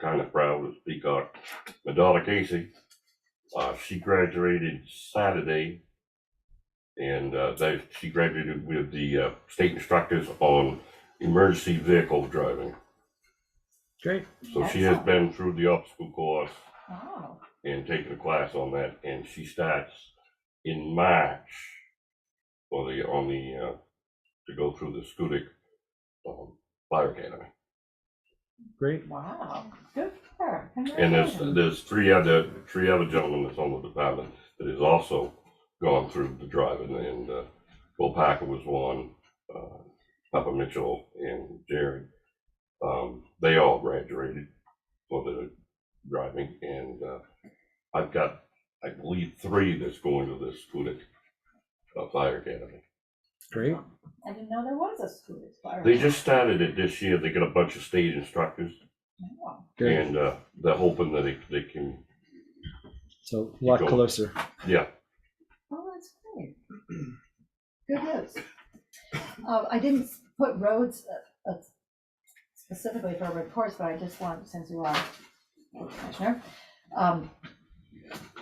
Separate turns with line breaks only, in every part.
kind of proud to speak on. My daughter Casey, uh, she graduated Saturday. And, uh, they, she graduated with the, uh, state instructors on emergency vehicle driving.
Great.
So she has
Excellent.
been through the obstacle course
Wow.
and taken a class on that, and she starts in March for the, on the, uh, to go through the Scudic, um, Fire Academy.
Great.
Wow. Good for her.
And there's,
Congratulations.
there's three other, three other gentlemen that's on the department that has also gone through the driving, and, uh, Bill Packer was one, uh, Papa Mitchell and Jerry. Um, they all graduated for the driving, and, uh, I've got, I believe, three that's going to this Scudic uh, Fire Academy.
Great.
I didn't know there was a school fire.
They just started it this year, they got a bunch of state instructors,
Wow.
Good.
and, uh, they're hoping that they, they can
So a lot
Go.
closer.
Oh, that's great. Good news. Uh, I didn't s- put roads uh, uh, specifically for reports, but I just want, since you are commissioner, um,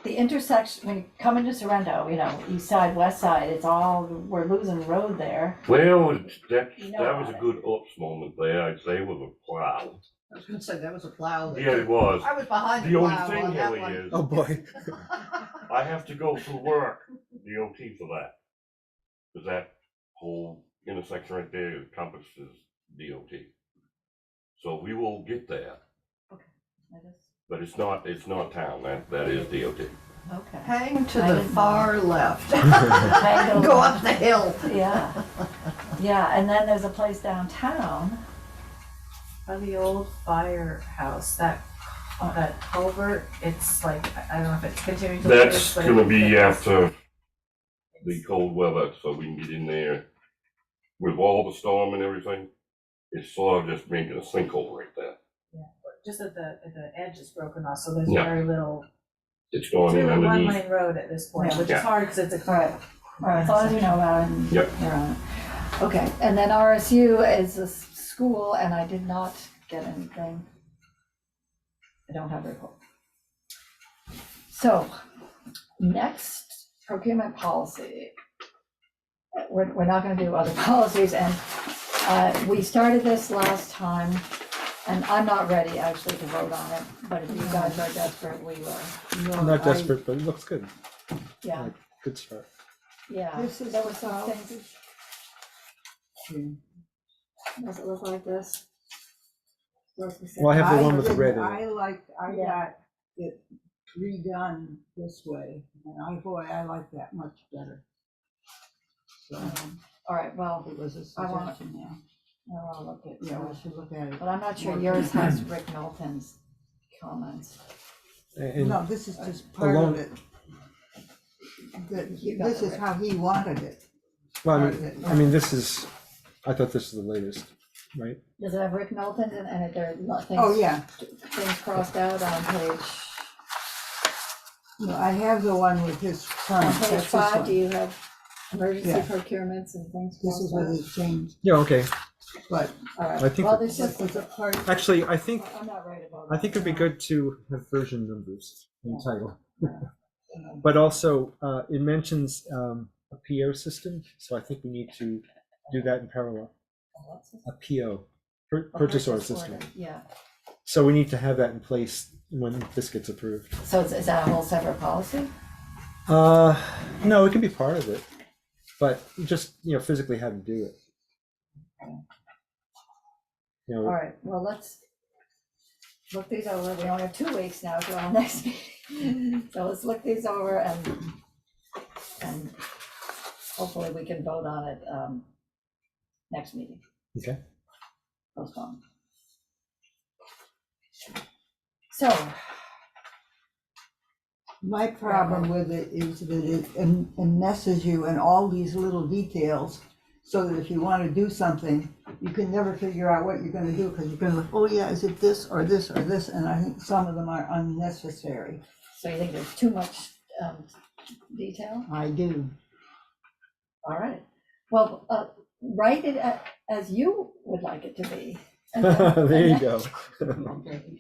the intersection, when you come into Sorrento, you know, east side, west side, it's all, we're losing road there.
Well, it's- that,
You know
that was a
about
good oops moment there, I'd say with a plow.
I was gonna say, that was a plow.
Yeah, it was.
I was behind
The
the
only
plow
thing,
on that
Haley,
one.
is
Oh boy.
I have to go for work, DOT for that. Cause that whole intersection right there encompasses DOT. So we will get there,
I just-
but it's not, it's not town, that, that is DOT.
Okay.
Hang to
I
the
didn't know.
far left.
Tango-
Go up the hill.
Yeah, yeah, and then there's a place downtown,
By the old firehouse, that, that culvert, it's like, I don't know if it's continuing to.
That's
but it-
gonna be after the cold weather, so we can get in there with all the storm and everything. It's sort of just making a sinkhole right there.
Just at the, at the edge is broken off, so there's
Yeah.
very little,
It's
it's
going in
really a
underneath.
one-lane road at this point,
Yeah.
which
Yeah.
is hard because it's a.
Right. or as long as you know about it. and
Yep.
you're on it. Okay, and then RSU is a s- school, and I did not get anything. I don't have a report. So, next, procurement policy. Uh, We're, we're not gonna do other policies, and, uh, we started this last time, and I'm not ready actually to vote on it, but if you guys are desperate, we will,
I'm not desperate, but it looks good.
yeah.
Good start.
Yeah,
This is
there were some
about-
things. Does it look like this?
Well, I have the one with the
didn't-
red in
I
it.
like, I
Yeah.
got it redone this way, and I, boy, I like that much better. So,
All right, well,
it was a
I want-
suggestion, yeah,
I'll look at
yeah, we
yours,
should look at it.
but I'm not sure yours has Rick Knowlton's comments.
And
No, this is just part
Alone.
of it. That-
You got
This
it
is
right.
how he wanted it.
well, I
part of
mean,
it.
I mean, this is. I thought this was the latest, right?
Does it have Rick Knowlton's and, and there are lo-
Oh,
things,
yeah,
things crossed out on page,
no, I have the one with his son,
on
Um, that's
page
this
five, do
one.
you have emergency
Yeah.
procurements and things
This is
crossed
what
out?
he changed,
Yeah. Okay.
but
All
I
right,
think
well,
that-
this
this
just,
was a part,
Actually, I think
I'm not right about that.
I think it'd be good to have version numbers in title.
you know,
But also, uh, it mentions um, a PO system, so I think we need to do that in parallel. A PO, pur-
A
purchase order system.
Yeah,
So we need to have that in place when this gets approved.
so is, is that a whole separate policy?
Uh, no, it can be part of it, but just, you know, physically how to do it. You
All
know,
right, well, let's look these over. We only have two weeks now to our next meeting. So let's look these over and, and hopefully we can vote on it, um, next meeting,
okay,
postpone. So,
My problem with it is that it en- enmesses you in all these little details, so that if you want to do something, you can never figure out what you're gonna do, because you're gonna, look, oh yeah, is it this or this or this, and I think some of them are unnecessary.
so you think there's too much, um, detail?
I do.
All right. Well, uh, write it a- as you would like it to be. and then-
there you
and then-
go.